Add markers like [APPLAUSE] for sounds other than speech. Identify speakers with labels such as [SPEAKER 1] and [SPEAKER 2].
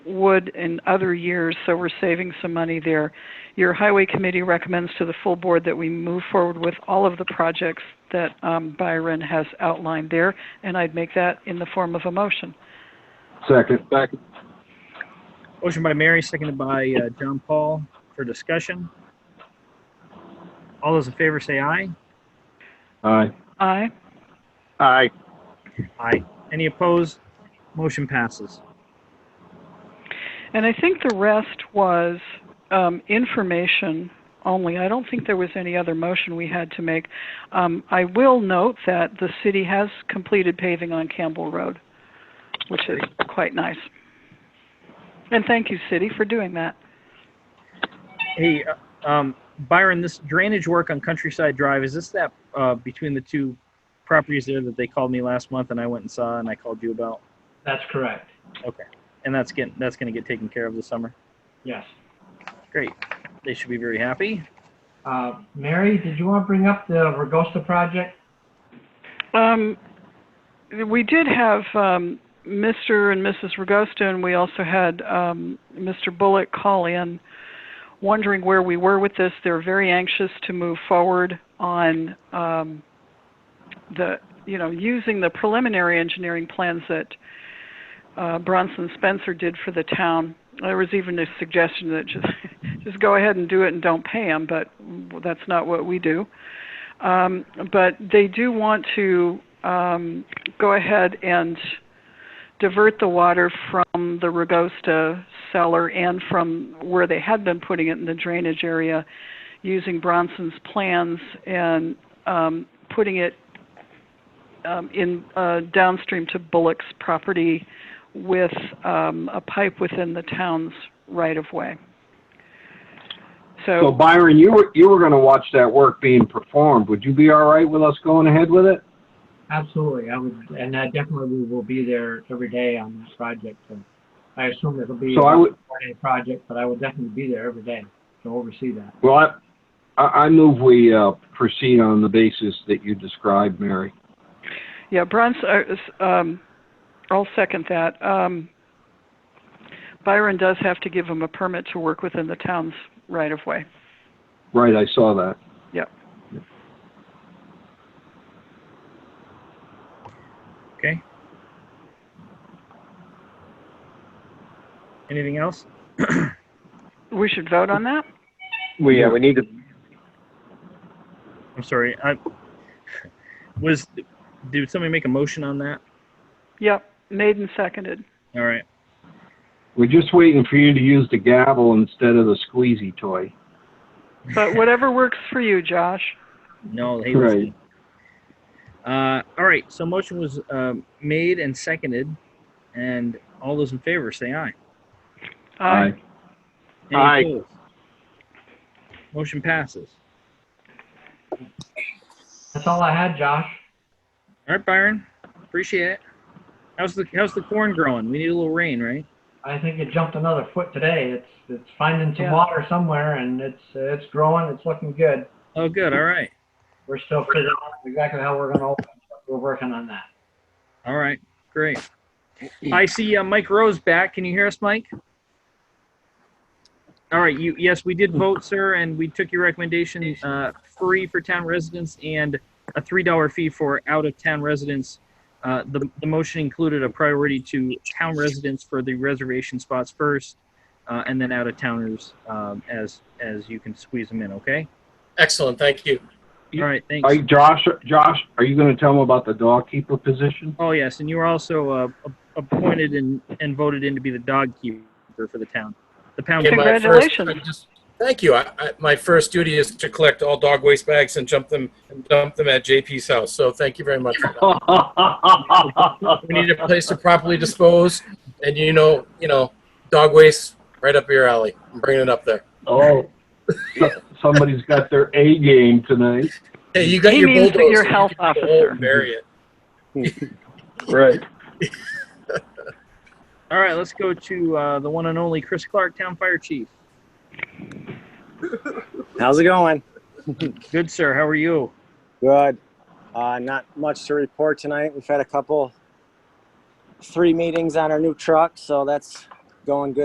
[SPEAKER 1] would in other years, so we're saving some money there. Your highway committee recommends to the full board that we move forward with all of the projects that um, Byron has outlined there, and I'd make that in the form of a motion.
[SPEAKER 2] Second.
[SPEAKER 3] Second.
[SPEAKER 4] Motion by Mary, seconded by uh, John Paul for discussion. All those in favor say aye.
[SPEAKER 2] Aye.
[SPEAKER 1] Aye.
[SPEAKER 3] Aye.
[SPEAKER 4] Aye. Any opposed? Motion passes.
[SPEAKER 1] And I think the rest was um, information only. I don't think there was any other motion we had to make. Um, I will note that the city has completed paving on Campbell Road, which is quite nice. And thank you, city, for doing that.
[SPEAKER 4] Hey, uh, um, Byron, this drainage work on Countryside Drive, is this that uh, between the two properties there that they called me last month and I went and saw and I called you about?
[SPEAKER 5] That's correct.
[SPEAKER 4] And that's getting, that's going to get taken care of this summer?
[SPEAKER 5] Yes.
[SPEAKER 4] Great. They should be very happy.
[SPEAKER 5] Uh, Mary, did you want to bring up the Regosta project?
[SPEAKER 1] Um, we did have um, Mr. and Mrs. Ragosta, and we also had um, Mr. Bullock call in wondering where we were with this. They're very anxious to move forward on um, the, you know, using the preliminary engineering plans that uh, Bronson Spencer did for the town. There was even a suggestion that just [LAUGHS] just go ahead and do it and don't pay them, but that's not what we do. Um, but they do want to um, go ahead and divert the water from the Ragosta cellar and from where they had been putting it in the drainage area using Bronson's plans and um, putting it um, in uh, downstream to Bullock's property with um, a pipe within the town's right of way.
[SPEAKER 2] So Byron, you were, you were gonna watch that work being performed. Would you be all right with us going ahead with it?
[SPEAKER 5] Absolutely, I would, and I definitely we will be there every day on this project. So I assume it'll be
[SPEAKER 2] So I would,
[SPEAKER 5] a project, but I will definitely be there every day to oversee that.
[SPEAKER 2] well, I, I I move we, uh, proceed on the basis that you described, Mary.
[SPEAKER 1] Yeah, Bronson, uh, s- um, I'll second that. Um, Byron does have to give him a permit to work within the town's right of way.
[SPEAKER 2] Right, I saw that.
[SPEAKER 4] Okay. Anything else?
[SPEAKER 1] We should vote on that?
[SPEAKER 3] We, yeah, we need to,
[SPEAKER 4] I'm sorry. I [LAUGHS] was. Did somebody make a motion on that?
[SPEAKER 1] Yep, made and seconded.
[SPEAKER 4] All right.
[SPEAKER 2] We're just waiting for you to use the gavel instead of the squeezy toy.
[SPEAKER 1] But whatever works for you, Josh.
[SPEAKER 4] No. Hey,
[SPEAKER 2] Right.
[SPEAKER 4] listen. Uh, all right. So motion was um, made and seconded, and all those in favor say aye.
[SPEAKER 1] Aye.
[SPEAKER 4] Any
[SPEAKER 3] Aye.
[SPEAKER 4] opposed? Motion passes.
[SPEAKER 5] That's all I had, Josh.
[SPEAKER 4] All right, Byron. Appreciate it. How's the how's the corn growing? We need a little rain, right?
[SPEAKER 5] I think it jumped another foot today. It's it's finding some
[SPEAKER 1] Yeah.
[SPEAKER 5] water somewhere, and it's it's growing. It's looking good.
[SPEAKER 4] Oh, good. All right.
[SPEAKER 5] We're still figuring out exactly how we're going to open. but We're working on that.
[SPEAKER 4] All right. Great. I see uh, Mike Rose back. Can you hear us, Mike? All right. You yes, we did vote, sir, and we took your recommendation uh, free for town residents and a three dollar fee for out of town residents. Uh, the the motion included a priority to town residents for the reservation spots first, uh, and then out of towners um, as as you can squeeze them in. Okay.
[SPEAKER 6] Excellent, thank you.
[SPEAKER 4] All right. Thanks.
[SPEAKER 2] Are, Josh, Josh, are you gonna tell them about the dog
[SPEAKER 3] [LAUGHS]
[SPEAKER 2] keeper position?
[SPEAKER 4] Oh yes, and you were also uh, a- appointed and, and voted in to be the dog keeper for the town. The pound.
[SPEAKER 6] Okay,
[SPEAKER 4] keeper.
[SPEAKER 6] my first-
[SPEAKER 1] Congratulations.
[SPEAKER 6] I just- Thank you. I, I, my first duty is to collect all dog waste bags and jump them and dump them at JP's house. So thank you very much. for that. We need a place to properly dispose, and you know, you know, dog waste right up your alley. I'm bringing it up there.
[SPEAKER 2] Oh, so- somebody's got their A game tonight.
[SPEAKER 6] Hey, you got
[SPEAKER 1] He
[SPEAKER 6] your
[SPEAKER 1] means that
[SPEAKER 6] bulldozer.
[SPEAKER 1] you're
[SPEAKER 6] You
[SPEAKER 1] health
[SPEAKER 6] can go home
[SPEAKER 1] officer.
[SPEAKER 6] and Bury it.
[SPEAKER 3] right.
[SPEAKER 4] All right, let's go to uh, the one and only Chris Clark, town fire chief.
[SPEAKER 7] How's it going?
[SPEAKER 4] Good sir, how are you?
[SPEAKER 7] Good. Uh, not much to report tonight. We've had a couple, three meetings on our new truck, so that's going good.